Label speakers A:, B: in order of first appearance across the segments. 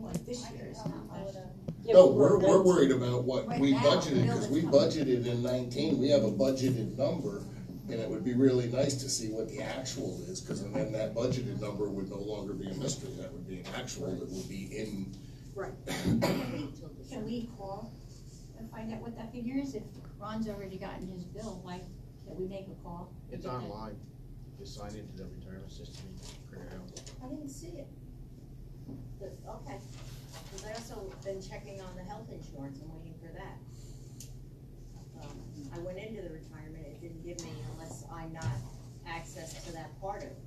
A: like this year is not much.
B: uh,
C: No, we're, we're worried about what
A: Right
C: we
A: now,
C: budgeted,
A: the bill
C: cause
A: is
C: we
A: coming.
C: budgeted in nineteen, we have a budgeted number, and it would be really nice to see what the actual is, cause and then that budgeted number would no longer be a mystery, that would be an actual, that would be in,
B: Right.
A: Can we call and find out what that figure is? If Ron's already gotten his bill, why can't we make a call? and
D: It's
A: get that?
D: online, just sign into the retirement system, and print it out.
E: I didn't see it.
B: But, okay, because I also been checking on the health insurance, I'm waiting for that. Um, I went into the retirement, it didn't give me unless I'm not access to that part of it.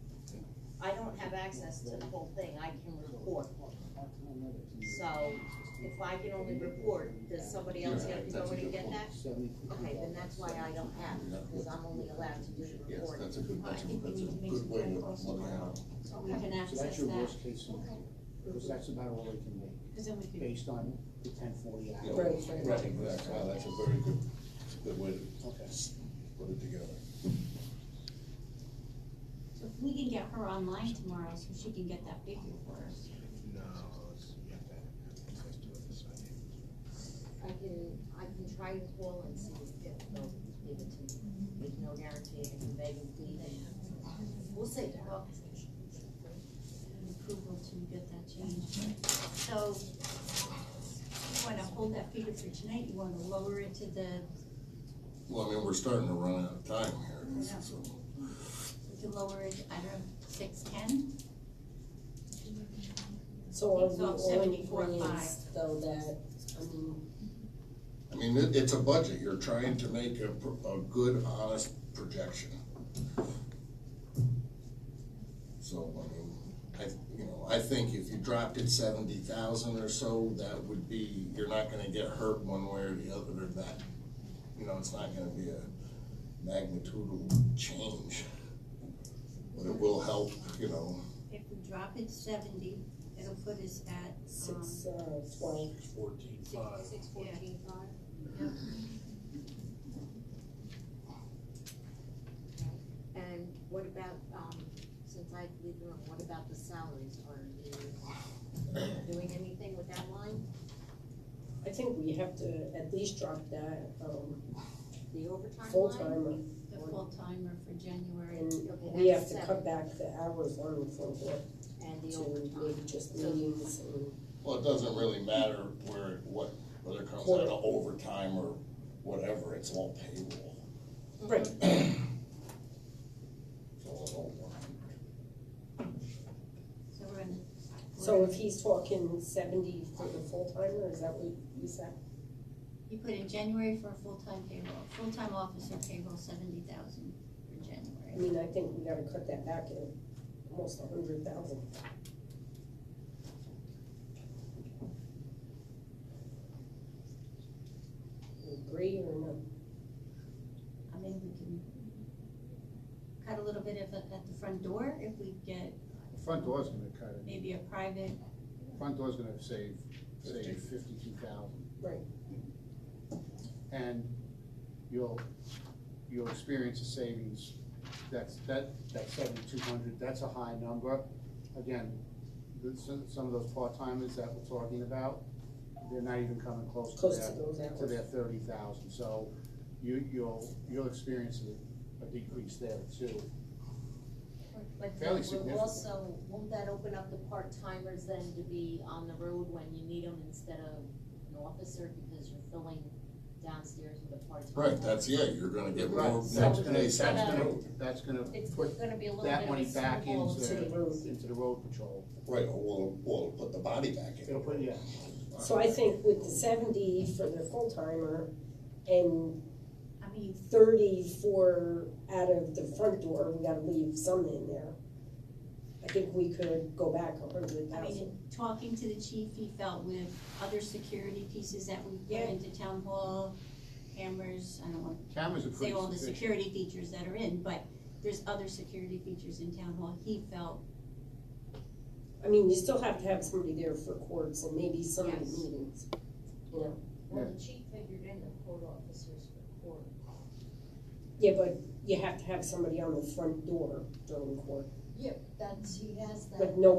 B: I don't have access to the whole thing, I can report. So, if I can only report, does somebody else have to go in and get that? Okay, then that's why I don't have, because I'm only allowed to do the
C: yes,
B: reporting.
C: that's a good, that's a,
A: I think we
C: that's
A: need to
C: a
A: make
C: good
A: some
C: way to
A: phone calls
C: look at it.
A: So we can
F: So
A: access
F: that's your
A: that,
F: worst case scenario, because that's about all they can make,
A: cause then we could.
F: based on the ten forty
C: Yeah.
F: hour.
C: Right,
F: right.
C: Right, exactly, Wow, that's a very good, good way to
F: Okay.
C: put it together.
A: So if we can get her online tomorrow, so she can get that figure for us.
D: No, it's, you have to have access to it to sign in.
B: I can, I can try and call and see if they'll give it to me, with no guarantee, and begging, pleading. We'll see.
A: Well, an Approval to get that changed. So you wanna hold that figure for tonight? You wanna lower it to the,
C: Well, I mean, we're starting to run out of time here,
A: Yeah.
C: so,
A: we can lower it, I don't know, six ten?
G: So are
A: It's
G: we
A: all
G: only
A: 74.5.
G: reinst though that, um, I mean,
C: I mean, it, it's a budget, you're trying to make a, pr- a good, honest projection. So, I mean, I, you know, I think if you dropped it seventy thousand or so, that would be, you're not gonna get hurt one way or the other or that. You know, it's not gonna be a magnitudinal change. But it will help, you know,
A: If we drop it seventy, it'll put us at, um,
G: six,
B: Uh-huh.
G: uh, twenty,
H: fourteen five.
E: Sixty-six,
A: fourteen,
E: five.
B: And what about, um, since I leave the room, what about the salaries, are you doing anything with that line?
G: I think we have to at least drop that, um,
B: The overtime
G: full
B: line?
G: timer.
A: the full timer for January.
G: And
B: Okay,
G: we have
B: that's
G: to
B: seven.
G: cut back the hours on the full board
B: And the
G: to
B: overtime,
G: maybe just
B: So-
G: meetings and,
C: well, it doesn't really matter where, what, whether it comes out of overtime or whatever, it's all payroll.
G: right,
C: It's all an old one.
A: So we're in.
G: so if he's talking seventy for the full timer, is that what you said?
A: You put in January for a full-time payroll, full-time officer payroll seventy thousand for
G: I
A: January.
G: mean, I think we gotta cut that back at almost a hundred thousand. Agree or no?
A: I mean, we can cut a little bit of, it at the front door if we get
I: The Front door's gonna cut it,
A: maybe a private,
I: front door's gonna save, save
C: Fifty.
I: fifty-two thousand.
G: Right.
I: And you'll, you'll experience a savings, that's, that, that seventy-two hundred, that's a high number. Again, the- some, some of those part-timers that we're talking about, they're not even coming close to
G: Close to
I: their,
G: those
I: to
G: hours.
I: their thirty thousand, so you, you'll, you'll experience a- a decrease there too.
B: but
I: Fairly
B: then we'll
I: significant.
B: also, won't that open up the part-timers then to be on the road when you need them instead of an officer, because you're filling downstairs with a part-time?
C: Right, that's, yeah, you're gonna get more.
I: Right, that's gonna,
C: next
I: that's
C: day,
I: gonna,
C: Saturday.
I: that's gonna
B: It's
I: put
B: gonna be a little bit of a
I: that money back
B: snowball
I: into,
G: To the road.
I: into the road patrol.
C: Right, or we'll, we'll put the body back in.
I: It'll put, yeah,
G: So I think with the seventy for the full timer and
A: I mean,
G: thirty for out of the front door, we gotta leave some in there. I think we could go back a hundred
A: I
G: thousand.
A: mean, talking to the chief, he felt with other security pieces that we
G: Yeah.
A: put into town hall, cameras, I don't wanna
I: cameras are
A: say
I: pretty
A: all the
I: sufficient.
A: security features that are in, but there's other security features in town hall, he felt,
G: I mean, you still have to have somebody there for courts and maybe some of the
B: Yes.
G: meetings.
B: Well, the chief figured in the court officers for court.
G: Yeah, but you have to have somebody on the front door during court,
E: That's, he has that.
G: but no